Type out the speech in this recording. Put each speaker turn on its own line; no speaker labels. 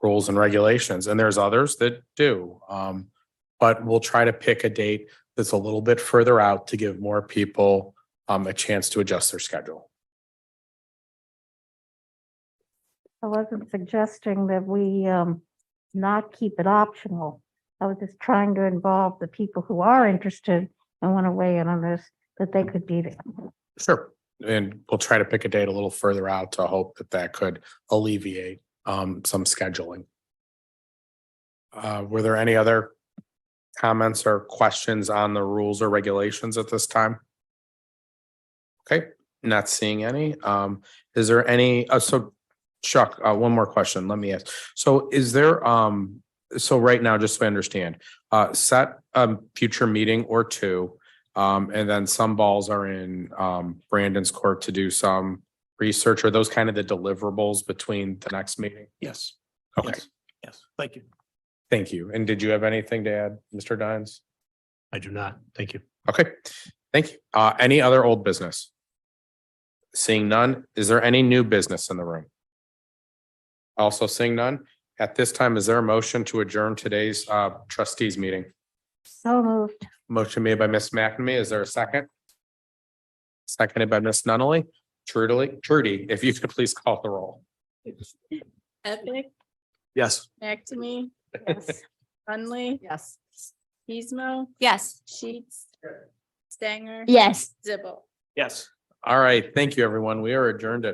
rules and regulations, and there's others that do. Um, but we'll try to pick a date that's a little bit further out to give more people um, a chance to adjust their schedule.
I wasn't suggesting that we um not keep it optional. I was just trying to involve the people who are interested and want to weigh in on this, that they could be there.
Sure. And we'll try to pick a date a little further out to hope that that could alleviate um some scheduling. Uh, were there any other comments or questions on the rules or regulations at this time? Okay, not seeing any. Um, is there any, uh, so Chuck, uh, one more question, let me ask. So is there um, so right now, just so I understand, uh, set a future meeting or two. Um, and then some balls are in um Brandon's court to do some research or those kind of the deliverables between the next meeting.
Yes.
Okay,
yes, Yes, thank you.
thank you. And did you have anything to add, Mr. Dines?
I do not. Thank you.
Okay, thank you. Uh, any other old business? Seeing none, is there any new business in the room? Also seeing none, at this time, is there a motion to adjourn today's uh trustees meeting?
So moved.
Motion made by Ms. McNamee. Is there a second? Seconded by Ms. Nunnally. Trudy, Trudy, if you could please call the roll.
Epic,
Yes.
McNamee,
Yes.
Hunley,
Yes.
Pismo,
Yes.
Sheets, Stanger,
Yes.
Zibble.
Yes.
All right, thank you, everyone. We are adjourned at